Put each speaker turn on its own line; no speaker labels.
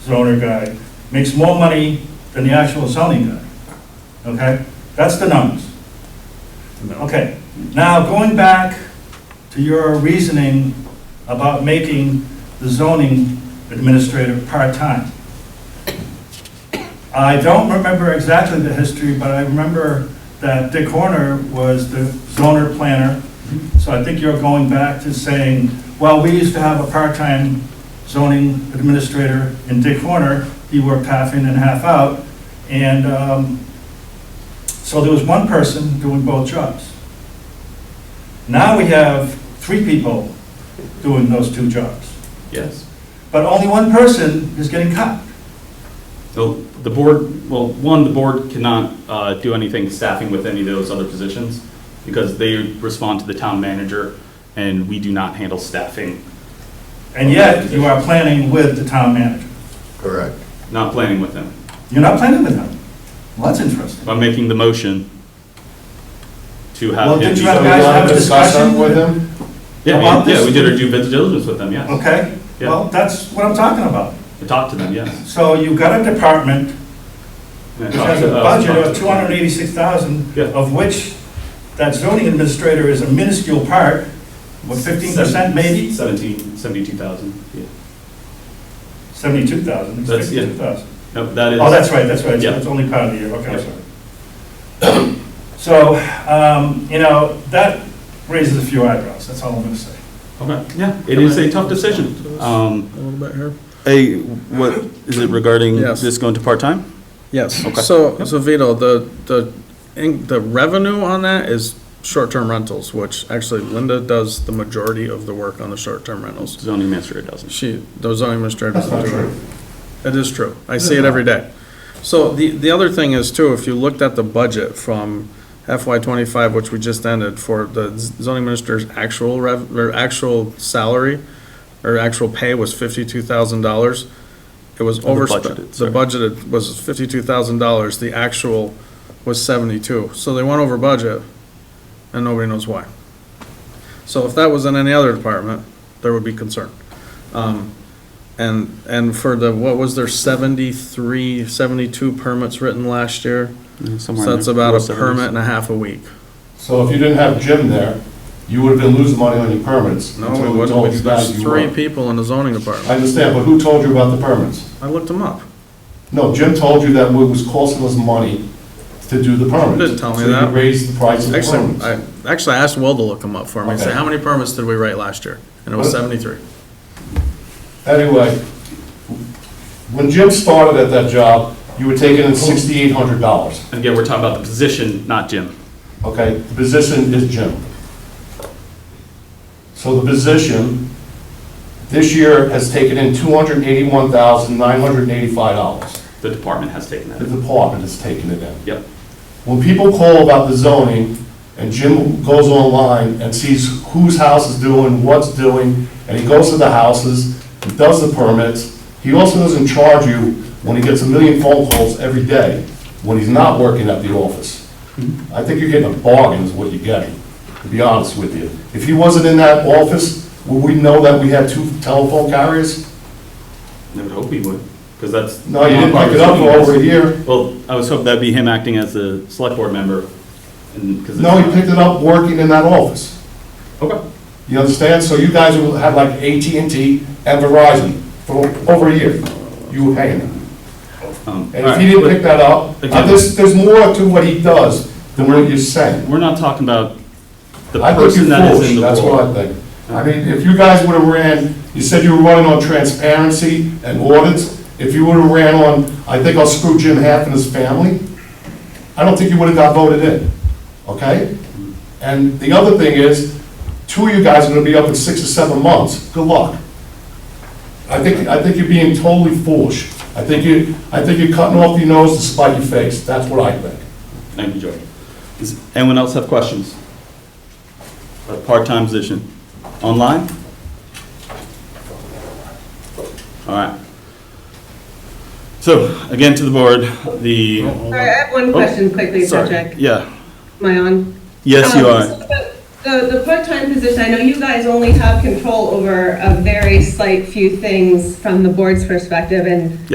zoner guy makes more money than the actual zoning guy. Okay? That's the numbers. Okay, now going back to your reasoning about making the zoning administrator part-time. I don't remember exactly the history, but I remember that Dick Horner was the zoner planner. So I think you're going back to saying, well, we used to have a part-time zoning administrator in Dick Horner. He worked half in and half out. And um, so there was one person doing both jobs. Now we have three people doing those two jobs.
Yes.
But only one person is getting cut.
So the board, well, one, the board cannot uh, do anything staffing with any of those other positions because they respond to the town manager and we do not handle staffing,
And yet, you are planning with the town manager.
Correct.
not planning with them.
You're not planning with him. Well, that's interesting.
I'm making the motion to
Well,
have him.
did
be-
you have- guys a discussion?
with him?
Yeah,
about
we- yeah,
this?
we did our due diligence with them, yes.
Okay?
Yeah.
Well, that's what I'm talking about.
I talked to them, yes.
So you've got a department
And I
which
talked
has a
to- uh,
budget
talked
of
to-
two hundred eighty-six thousand,
Yeah.
of which that zoning administrator is a minuscule part, what, fifteen percent maybe?
Seventeen, seventy-two thousand, yeah.
Seventy-two thousand,
That's- yeah.
fifty-two thousand.
No, that is.
Oh, that's right, that's right,
Yeah.
it's only part of the year, okay, I'm
Yeah.
sorry. So, um, you know, that raises a few eyebrows, that's all I'm gonna say.
Okay, yeah, it is a tough decision. Um,
A little bit here.
Hey, what, is it regarding
Yes.
this going to part-time?
Yes.
Okay.
So, so Vito, the, the, in- the revenue on that is short-term rentals, which actually Linda does the majority of the work on the short-term rentals.
Zoning administrator doesn't.
She, the zoning administrator
That's
doesn't
not
do
true.
it. That is true. I see it every day. So the, the other thing is too, if you looked at the budget from FY twenty-five, which we just ended, for the zoning minister's actual rev, or actual salary, or actual pay was fifty-two thousand dollars. It was
the budgeted,
overspent, the
sorry.
budgeted was fifty-two thousand dollars, the actual was seventy-two. So they went over budget, and nobody knows why. So if that was in any other department, there would be concern. Um, and, and for the, what was there, 73, 72 permits written last year?
Somewhere
So
in
that's
there.
about
Low
a
70s.
permit and a half a week.
So if you didn't have Jim there, you would have been losing money on your permits.
No,
until
we
we told
wouldn't,
you guys
there's
you
three
were.
people in the zoning
I
department.
understand, but who told you about the permits?
I looked them up.
No, Jim told you that it was costing us money to do the permits.
Didn't tell me
So you
that.
raised the price of the
Actually,
permits.
I, actually, I asked Will to look them up for me, say,
Okay.
how many permits did we write last year? And it was
What?
73.
Anyway, when Jim started at that job, you were taking in sixty-eight hundred dollars,
And Again, we're talking about the position, not Jim.
okay? The position is Jim. So the position this year has taken in two hundred eighty-one thousand, nine hundred eighty-five dollars.
The department has taken that.
The department has taken it in.
Yep.
When people call about the zoning, and Jim goes online and sees whose house is doing, what's doing, and he goes to the houses, he does the permits, he also doesn't charge you when he gets a million phone calls every day, when he's not working at the office. I think you're getting a bargain is what you're getting, to be honest with you. If he wasn't in that office, would we know that we had two telephone carriers?
I would hope he would, because that's.
No, you didn't pick it up for over a year.
Well, I was hoping that'd be him acting as the select board member, and, because.
No, he picked it up working in that office.
Okay,
You understand? So you guys will have like at and t and Verizon for over a year. You were paying them.
um, all
And if
right,
he didn't
but
pick that up, uh,
Again-
there's, there's more to what he does than what you're saying.
We're not talking about the
I think
person
you're
that is
foolish,
in the
that's what I
role.
think. I mean, if you guys would have ran, you said you were running on transparency and audits. If you would have ran on, I think I'll screw Jim half and his family, I don't think you would have got voted in, okay? And the other thing is, two of you guys are gonna be up in six or seven months. Good luck. I think, I think you're being totally foolish. I think you, I think you're cutting off your nose to spite your face. That's what I think.
Thank you, George. Does anyone else have questions? A part-time position, online? All right. So, again, to the board, the.
All right, I have one
Oh,
question quickly, so
Sorry.
Jack.
Yeah,
Am I on?
yes, you
Um,
are.
so the- The, the part-time position, I know you guys only have control over a very slight few things from the board's perspective, and